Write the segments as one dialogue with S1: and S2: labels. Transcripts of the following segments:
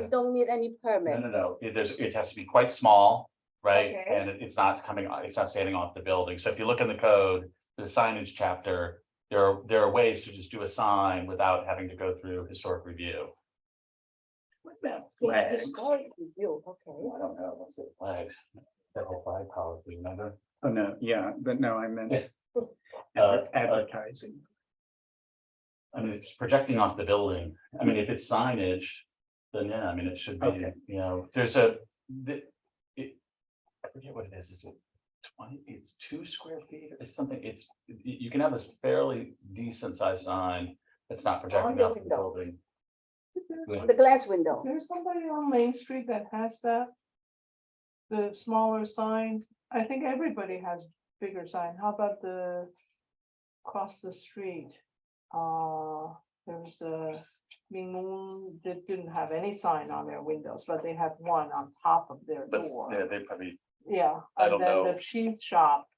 S1: you don't need any
S2: No,
S1: permit.
S2: no, no, it, there's, it has to be quite small, right?
S1: Okay.
S2: And it- it's not coming, o- it's not standing off the building, so if you look in the code, the signage chapter. There are, there are ways to just do a sign without having to go through historic review. What about
S1: Okay,
S2: flags?
S1: historic review, okay.
S2: Oh, I don't know, what's the flags? That whole flag policy, remember?
S3: Oh, no, yeah, but no, I meant
S2: Uh, uh,
S3: adver- advertising.
S2: I mean, it's projecting off the building. I mean, if it's signage, then yeah, I mean, it should be,
S3: Okay.
S2: you know, there's a, the, it. I forget what it is, is it twenty, it's two square feet or something, it's, y- you can have a fairly decent sized sign that's
S4: Oh,
S2: not projecting
S1: the
S2: off the
S1: window.
S2: building.
S1: The glass window.
S4: Is there somebody on Main Street that has that? The smaller sign, I think everybody has bigger sign, how about the? Across the street, uh, there was a Ming Moon that didn't have any sign on their windows, but they had one on top of their
S2: But, yeah,
S4: door.
S2: they probably,
S4: Yeah,
S2: I
S4: and
S2: don't
S4: then the
S2: know.
S4: cheese shop.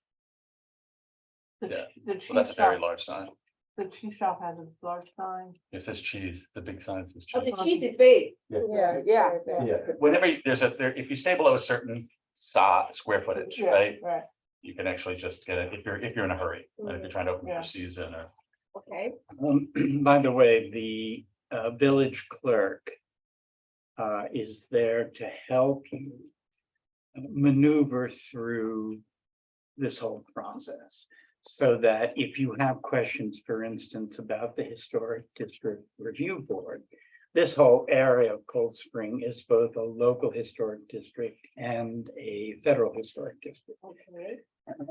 S4: The
S2: Yeah,
S4: ch- the
S2: well, that's
S4: cheese
S2: a very
S4: shop,
S2: large sign.
S4: the cheese shop has a large sign.
S2: It says cheese, the big sign says
S5: Oh,
S2: cheese.
S5: the cheese is big.
S1: Yeah, yeah.
S2: Yeah, whenever you- there's a, there, if you stay below a certain size, square footage,
S4: Yeah,
S2: right?
S4: Right.
S2: you can actually just get it if you're, if you're in a hurry, like if you're trying to open
S4: Yeah.
S2: your season or.
S1: Okay,
S3: Um, by the way, the uh, village clerk uh, is there to help you uh, maneuver through this whole process. So that if you have questions, for instance, about the Historic District Review Board, this whole area of Cold Spring is both a local historic district and a federal historic district.
S4: Okay.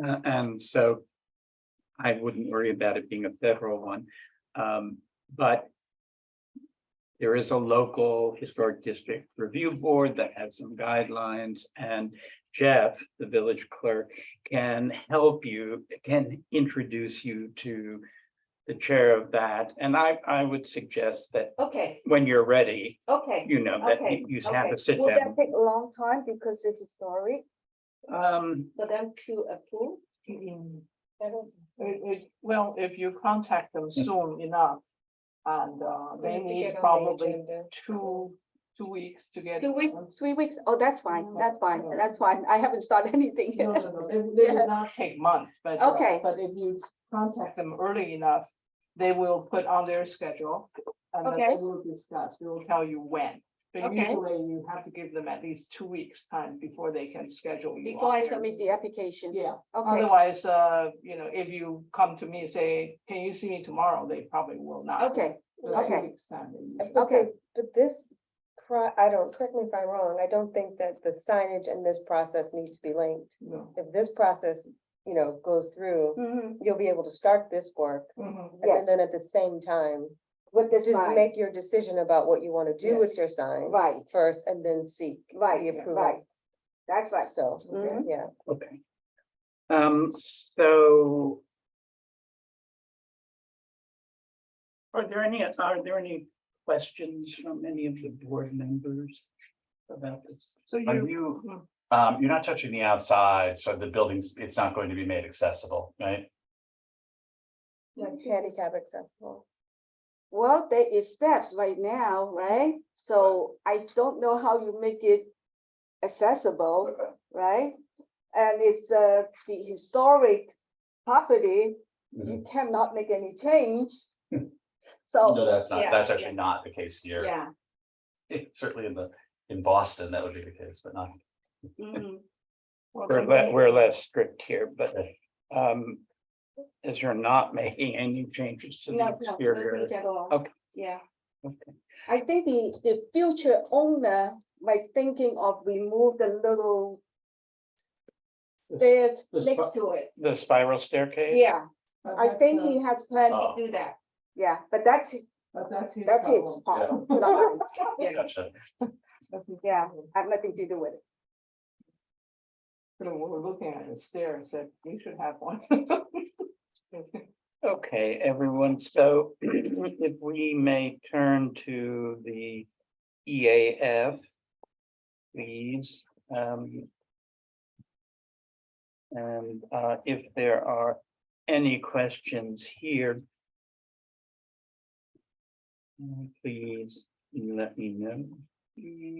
S3: Uh, And so I wouldn't worry about it being a federal one, um, but there is a local historic district review board that has some guidelines and Jeff, the village clerk, can help you, can introduce you to the chair of that. And I, I would suggest that
S5: Okay,
S3: when you're ready,
S5: okay.
S3: you know, that
S5: Okay,
S3: you- you have a
S5: okay.
S3: sit
S1: will that
S3: down.
S1: take a long time because it's historic?
S3: Um,
S5: For them to approve.
S4: Mm.
S5: I don't think so.
S4: It, it, well, if you contact them soon enough, and, uh,
S5: We
S4: they
S5: need to
S4: need
S5: get on the
S4: probably
S5: agenda.
S4: two, two weeks to get.
S1: Two weeks,
S4: on-
S1: three weeks? Oh, that's fine,
S4: No,
S1: that's fine,
S4: no.
S1: that's fine. I haven't started anything
S4: No,
S1: yet.
S4: no, no, it it
S1: Yeah.
S4: will not take months, but. uh,
S1: Okay.
S4: But if you contact them early enough, they will put on their schedule. And then
S1: Okay.
S4: they will discuss, they will tell you when, but
S1: Okay.
S4: usually you have to give them at least two weeks time before they can schedule you.
S1: Before
S4: on
S1: I
S4: their-
S1: submit the application,
S4: Yeah,
S1: okay,
S4: otherwise, uh, you know, if you come to me and say, can you see me tomorrow, they probably will not.
S1: okay,
S4: But two
S1: Okay.
S4: weeks time they usually-
S1: But
S6: Okay,
S1: the-
S6: but this, pro- I don't, correct me if I'm wrong, I don't think that the signage and this process need to be linked.
S4: No.
S6: If this process, you know, goes through,
S1: Mhm,
S6: you'll be able to start this work.
S4: mm-hmm.
S1: Yes.
S6: Mm-hmm. And then at the same time,
S1: with the
S6: just
S1: sign,
S6: make your decision about what you want to do with your sign
S1: right,
S6: first and then seek. the
S1: right,
S6: approval.
S1: right. That's right.
S6: So,
S1: Mhm.
S6: yeah,
S3: Okay. Um, so. Are there any, are there any questions from any of the board members about this?
S4: So
S2: Are
S4: you,
S5: Hmm.
S2: you, um, you're not touching the outside, so the building's, it's not going to be made accessible, right?
S6: handicap accessible.
S1: Well, there is steps right now, right? So I don't know how you make it accessible, right? And it's uh, the historic property,
S3: Mm-hmm.
S1: you cannot make any change.
S2: No,
S1: So,
S2: that's not,
S5: Oh, yeah,
S2: that's
S5: yeah.
S2: actually not the case here.
S5: Yeah,
S2: Certainly in the, in Boston, that would be the case, but not.
S1: mhm.
S4: well,
S3: We're
S4: can
S3: le-
S4: we-
S3: we're less strict here, but,
S2: eh,
S3: um, as you're not making any changes to the
S5: no, no, no
S3: exterior.
S5: change at all.
S3: Okay.
S5: Yeah,
S3: Okay.
S1: I think the, the future owner might thinking of remove the little
S3: The
S1: stairs
S3: the
S1: next
S3: spot-
S1: to it.
S3: the spiral staircase?
S1: Yeah,
S4: but
S1: I
S4: that's,
S1: think
S4: uh,
S1: he has planned,
S2: Oh.
S5: do that.
S1: yeah, but that's,
S4: But that's his
S1: that's his
S4: problem.
S1: problem. not mine. Oh, Yeah.
S2: Gotcha.
S4: That's his
S1: Yeah.
S4: problem.
S1: I have nothing to do with it.
S4: So when we're looking at the stairs, that we should have one.
S3: Okay, everyone, so if we may turn to the EAF. Please, um. And uh, if there are any questions here. mm, Please let me know.
S4: Mm,